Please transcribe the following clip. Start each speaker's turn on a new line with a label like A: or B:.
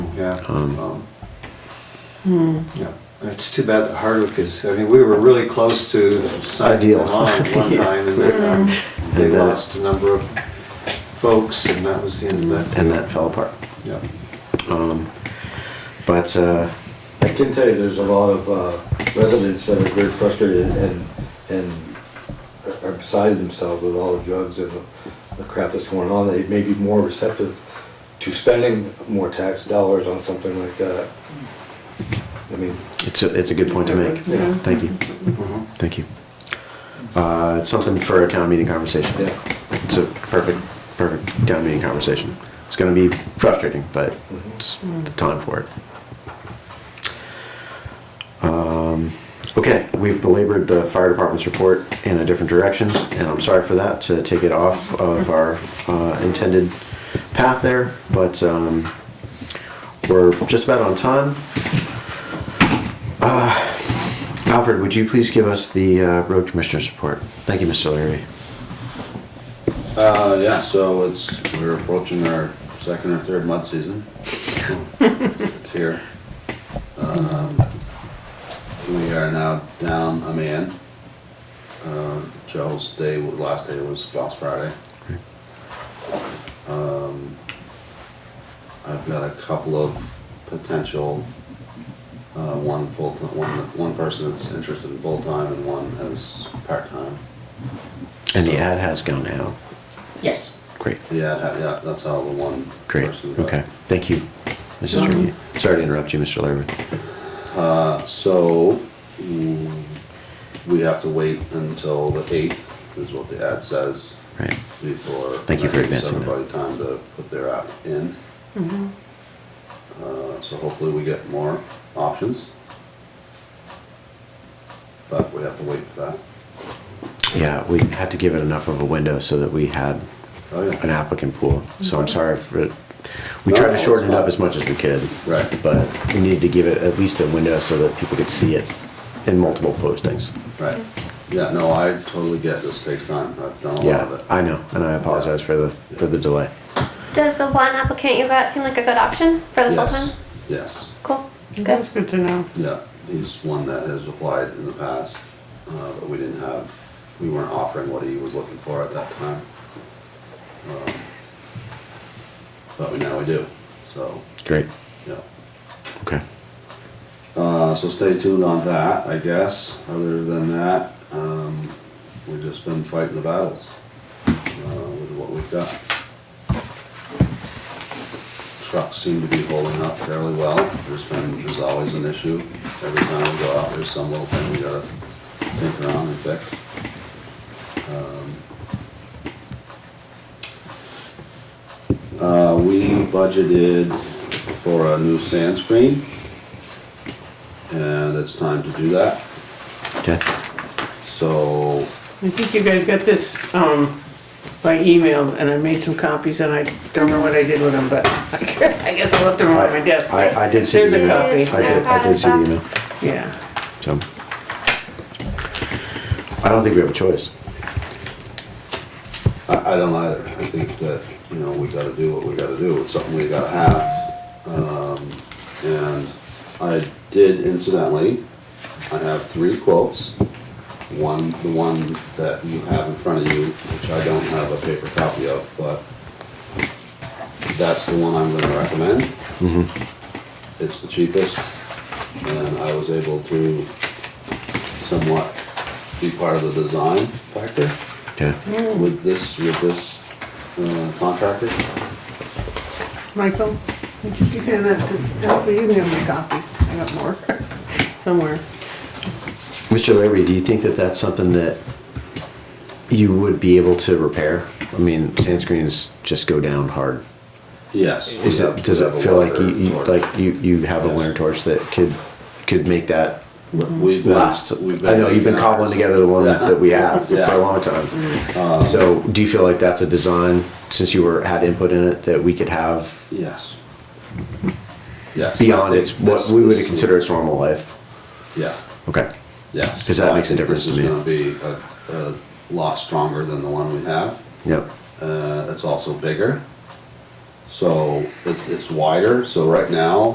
A: yeah. um, Yeah, it's too bad that Hardwick is, I mean, we were really close to signing
B: Ideal.
A: them on at one time and then um, they
B: And then it-
A: lost a number of folks and that was the end of that.
B: and that fell apart. Um,
A: Yeah.
B: But uh,
C: I can tell you, there's a lot of uh, residents that are very frustrated and, and are beside themselves with all the drugs and the crap that's going on. They may be more receptive to spending more tax dollars on something like that. I mean,
B: it's a, it's a good point to make.
C: Yeah.
B: Thank you. Thank you. Uh, it's something for a town meeting conversation.
C: Yeah.
B: It's a perfect, perfect town meeting conversation. It's going to be frustrating, but
C: mm-hmm.
B: it's the time for it. Um, okay, we've belabored the fire department's report in a different direction, and I'm sorry for that to take it off of our uh, intended path there, but um, we're just about on time. Uh, Alfred, would you please give us the uh, road commissioner's report? Thank you, Mr. O'Leary.
D: Uh, yeah, so it's, we're approaching our second or third mud season. It's here. Um, We are now down a man. Uh, Joe's day, last day was last Friday. Um, I've got a couple of potential, uh, one full, one, one person that's interested in full-time and one as part-time.
B: And the ad has gone out.
E: Yes.
B: Great,
D: Yeah, that- yeah, that's how the one
B: great,
D: person got.
B: okay. Thank you, Mrs. Reedy. Sorry to interrupt you, Mr. O'Leary.
D: Uh, so, mm, we have to wait until the eighth, is what the ad says,
B: Right,
D: before.
B: Thank you for
D: that gives
B: advancing that.
D: Everybody time to put their app in.
F: Mm-hmm.
D: Uh, so hopefully we get more options. But we have to wait for that.
B: yeah, we had to give it enough of a window so that we had
D: Oh,
B: an
D: yeah,
B: applicant pool. So I'm sorry for, it. we
D: No,
B: tried to
D: it's
B: shorten it up
D: fine.
B: as much as we could.
D: Right.
B: But we needed to give it at least a window so that people could see it in multiple postings.
D: right. Yeah, no, I totally get this takes time. I've done a lot of
B: Yeah,
D: it.
F: Uh,
B: I know, and I apologize for the, for the delay.
F: Does the one applicant you got seem like a good option for the full
D: Yes,
F: time?
D: Yes.
F: Cool.
E: That's good to know.
D: Yeah, he's one that has applied in the past, uh, but we didn't have, we weren't offering what he was looking for at that time. Um, But we now we do, so,
B: Great,
D: yeah.
B: okay.
D: Uh, so stay tuned on that, I guess. Other than that, um, we've just been fighting the battles, uh, with what we've got. Trucks seem to be holding up fairly well. There's been, there's always an issue. Every time we go out, there's some little thing we gotta think around and fix. Um, Uh, we budgeted for a new sand screen. And it's time to do that.
B: Okay.
D: So,
E: I think you guys got this um, by email, and I made some copies, and I don't know what I did with them, but I guess I left them on my desk.
B: I, I did see
E: There's
B: the
E: a
B: email.
E: copy.
B: I did, I did see the email,
E: Yeah.
B: so. I don't think we have a choice.
D: I, I don't either. I think that, you know, we gotta do what we gotta do. It's something we gotta have. Um, and I did incidentally, I have three quotes. One, the one that you have in front of you, which I don't have a paper copy of, but that's the one I'm gonna recommend. It's the cheapest, and I was able to somewhat be part of the design factor
B: Yeah,
D: with this, with this uh, contractor.
E: Michael, would you hand that to Alfie? You can have my copy. I got more somewhere.
B: Mr. Larry, do you think that that's something that you would be able to repair? I mean, sand screens just go down hard.
D: Yes.
B: Is
D: we
B: it,
D: have-
B: does
D: we
B: it
D: have a
B: feel like you,
D: welder
B: you,
D: torch.
B: like you, you have a
D: Yes.
B: winter torch that could, could make that
D: We've been-
B: last?
D: we've
B: I know you've been
D: making
B: cobbling
D: ours.
B: together the one
D: Yeah.
B: that we have for
D: Yeah. Mm-hmm. Um,
B: a long time. So do you feel like that's a design, since you were, had input in it, that we could have
D: Yes. Yes.
B: beyond
D: I think
B: its what
D: this-
B: we would
D: this-
B: consider its normal life.
D: Yeah,
B: Okay.
D: yes.
B: 'Cause that
D: I
B: makes a
D: think
B: difference to me.
D: This is gonna be a, a lot stronger than the one we have.
B: Yep.
D: Uh, It's also bigger. So it's, it's wider, so right now,